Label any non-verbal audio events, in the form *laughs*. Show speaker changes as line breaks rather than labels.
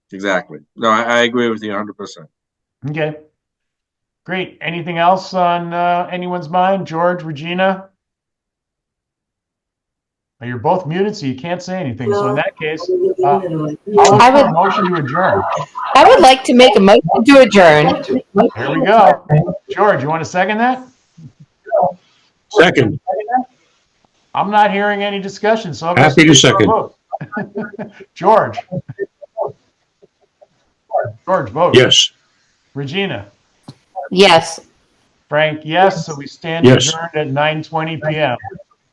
exactly. No, I, I agree with you hundred percent.
Okay. Great. Anything else on uh, anyone's mind? George, Regina? Well, You're both muted, so you can't say anything. So in that case, uh, I'll
I
put a
would-
motion to adjourn.
I would like to make a motion to adjourn.
Here we go. George, you want to second that?
Second,
I'm not hearing any discussion, so I'm gonna
happy to
start
second.
vote. *laughs* George? George, vote.
Yes.
Regina?
Yes.
Frank, yes. So we stand
Yes.
adjourned at 9:20 PM.